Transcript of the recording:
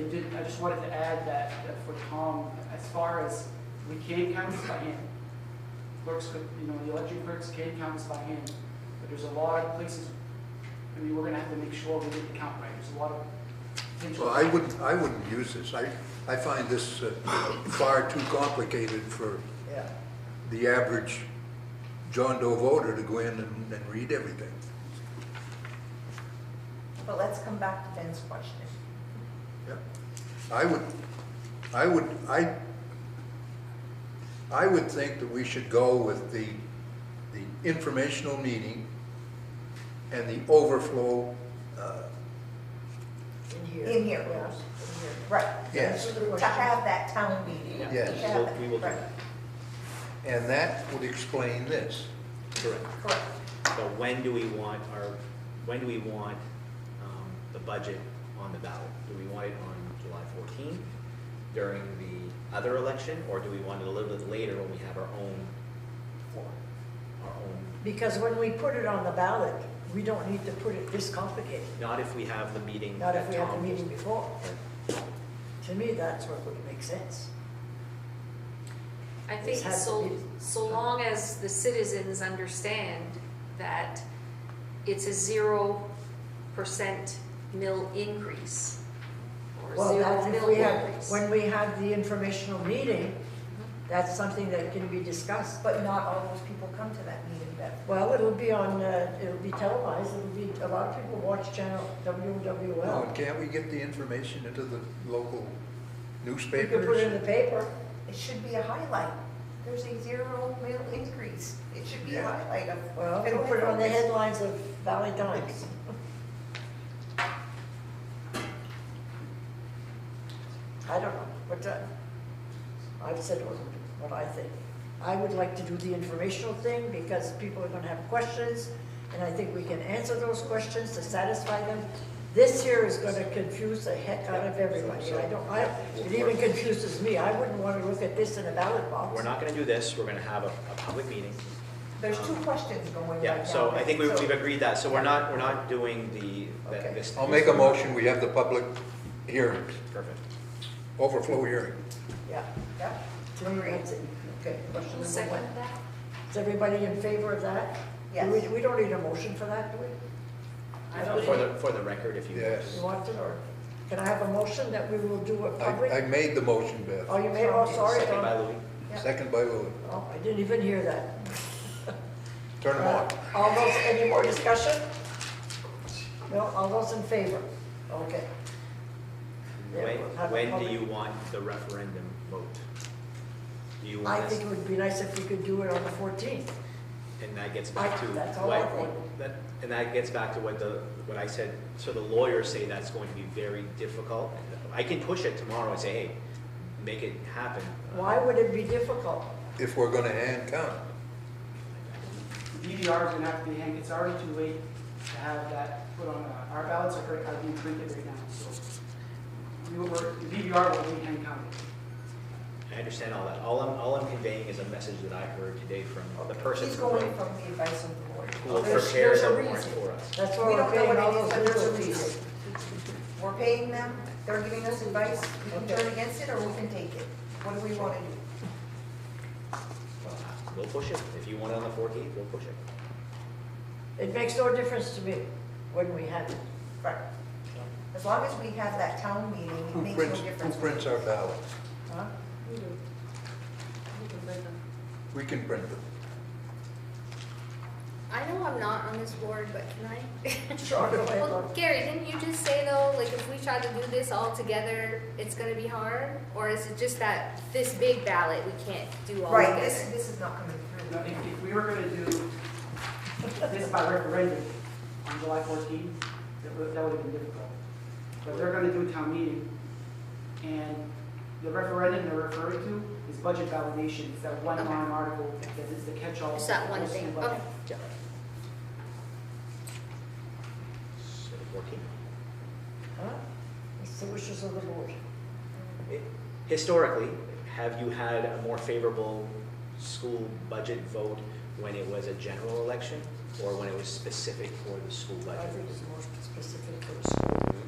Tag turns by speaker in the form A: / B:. A: I did- I just wanted to add that, that for Tom, as far as we can count this by hand. Clerks could, you know, the election clerks can count this by hand, but there's a lot of places, I mean, we're gonna have to make sure we get the count right, there's a lot of potential.
B: Well, I wouldn't, I wouldn't use this. I, I find this uh, far too complicated for
A: Yeah.
B: the average John Doe voter to go in and, and read everything.
C: But let's come back to Ben's question.
B: Yeah. I would, I would, I, I would think that we should go with the, the informational meeting and the overflow, uh,
D: In
C: In here.
D: Yes.
C: Right.
B: yes.
C: To have that town meeting.
D: Yeah.
B: Yes.
C: To have it,
D: We will do
C: right,
D: that.
B: And that would explain this.
D: Correct.
C: Correct.
D: So when do we want our, when do we want um, the budget on the ballot? Do we want it on July 14th during the other election? Or do we want it a little bit later when we have our own, our own?
E: Because when we put it on the ballot, we don't need to put it this complicated,
D: Not if we have the meeting
E: not if
D: that
E: we have the
D: Tom-
E: meeting before. To me, that's what would make sense.
F: I
E: It's
F: think
E: had to
F: so,
E: be-
F: so long as the citizens understand that it's a zero percent mill increase. Or
E: Well, that's
F: zero
E: if
F: mill
E: we had-
F: increase.
E: When we have the informational meeting, that's something that can be discussed.
C: But not all those people come to that meeting, Ben.
E: Well, it'll be on, uh, it'll be televised, it'll be, a lot of people watch channel
B: Now,
E: WWL.
B: and can't we get the information into the local
E: You can put it in
B: newspapers?
E: the paper.
C: It should be a highlight. There's a zero mill increase. It should be a
B: Yeah.
C: highlight of.
E: Well, you can put it on the headlines of Valley Times. I don't know, but uh, I've said what- what I think. I would like to do the informational thing because people are gonna have questions, and I think we can answer those questions to satisfy them. This here is gonna confuse the heck out of everybody. I don't, I, it even confuses me. I wouldn't wanna look at this in a ballot box.
D: We're not going to do this, we're going to have a, a public meeting.
C: There's two questions going right now.
D: Yeah, so I think we-
C: Ben.
D: we've agreed that, so we're not, we're not doing the, that-
C: Okay.
D: this.
B: I'll make a motion, we have the public hearings,
D: Perfect.
B: overflow hearing.
E: Yeah,
C: Yeah.
E: to me, that's it. Okay, question
F: Who
E: number one.
F: seconded that?
E: Is everybody in favor of that?
C: Yes.
E: We, we don't need a motion for that, do we?
F: I
D: Uh,
F: put
D: For
F: it-
D: the, for the record, if you.
B: Yes.
E: You want it, or can I have a motion that we will do a
B: I, I
E: public?
B: made the motion,
E: Oh,
B: Beth.
E: you made, oh, sorry,
D: Second by
E: Don.
D: Louis.
C: Yeah.
B: Second by Louis.
E: Oh, I didn't even hear that. Uh,
B: Turn them on.
E: All those, any more discussion? No, all those in favor? Okay. Yeah,
D: When,
E: we'll have a
D: when
E: public-
D: do you want the referendum vote? Do you
E: I
D: want us,
E: think it would be nice if we could do it on the fourteenth.
D: and that gets back to
E: I-
D: what?
E: that's all I think.
D: that- And that gets back to what the, what I said, so the lawyers say that's going to be very difficult. I can push it tomorrow and say, hey, make it happen. Um,
E: Why would it be difficult?
B: If we're gonna hand count,
A: The DVR is gonna have to be hanged, it's already too late to have that put on, uh, our ballots are, are being printed right now, so. We were, the DVR will be hand counted.
D: I understand all that. All I'm, all I'm conveying is a message that I heard today from the person
C: He's
D: who
C: going
D: will-
C: from the advice of the board.
D: who will
C: There's-
D: prepare
C: there's a
D: the warrant
C: reason.
D: for us.
E: That's
C: We
E: why
C: don't
E: we're
C: know
E: paying
C: what
E: all
C: it is,
E: those
C: but there's a
E: legal fees.
C: reason. We're paying them, they're giving us advice, we can
E: Okay.
C: turn against it or we can take it. What do we want to do?
D: Well, We'll push it. If you want it on the fourteenth, we'll push it.
E: It makes no difference to me when we have it.
C: Right. As long as we have that town meeting, it
B: who
C: makes no
B: prints, who
C: difference.
B: prints our ballots?
E: Huh?
B: We can print them.
G: I know I'm not on this board, but can I?
E: Sure, go ahead,
G: Well,
E: Laura.
G: Gary, didn't you just say though, like if we try to do this all together, it's gonna be hard? Or is it just that this big ballot, we can't do all
C: Right, this,
G: together?
C: this is not coming
A: Now,
C: through.
A: if, if we were gonna do this by referendum on July fourteenth, that would, that would have been difficult. But they're gonna do a town meeting, and the referendum they're referring to is budget validation, it's that one
G: Okay.
A: line article, that is the catch-all.
G: It's that one thing,
A: But-
G: okay.
D: So the fourteenth.
E: Huh? It's the wishes of the board.
D: Historically, have you had a more favorable school budget vote when it was a general election or when it was specific for the school
E: I
D: budget?
E: think it's more specific for the school.